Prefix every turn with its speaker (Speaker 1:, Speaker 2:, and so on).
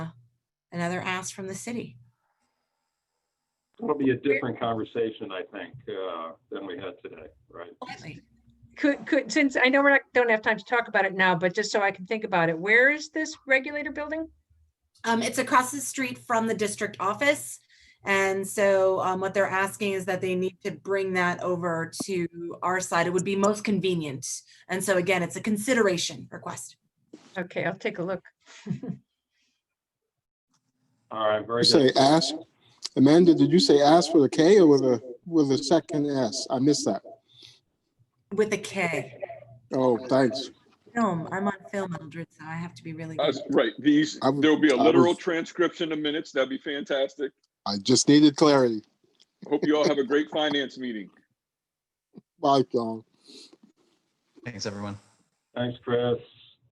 Speaker 1: another ask from the city.
Speaker 2: It'll be a different conversation, I think, uh, than we had today, right?
Speaker 1: Certainly.
Speaker 3: Could, could, since I know we're not, don't have time to talk about it now, but just so I can think about it, where is this regulator building?
Speaker 1: Um, it's across the street from the district office. And so um, what they're asking is that they need to bring that over to our side. It would be most convenient. And so again, it's a consideration request.
Speaker 3: Okay, I'll take a look.
Speaker 2: All right, very
Speaker 4: You
Speaker 2: good.
Speaker 4: say ask, Amanda, did you say ask with a K or with a, with a second S? I missed that.
Speaker 1: With a K.
Speaker 4: Oh, thanks.
Speaker 1: Film, I'm on film, Eldred, so I have to be really.
Speaker 5: Uh,
Speaker 1: good.
Speaker 5: Right, these,
Speaker 4: I was-
Speaker 5: there'll be a
Speaker 4: I
Speaker 5: literal
Speaker 4: was-
Speaker 5: transcription of minutes. That'd be fantastic.
Speaker 4: I just needed clarity.
Speaker 5: Hope you all have a great finance meeting.
Speaker 4: Bye, John.
Speaker 6: Thanks, everyone.
Speaker 2: Thanks, Chris.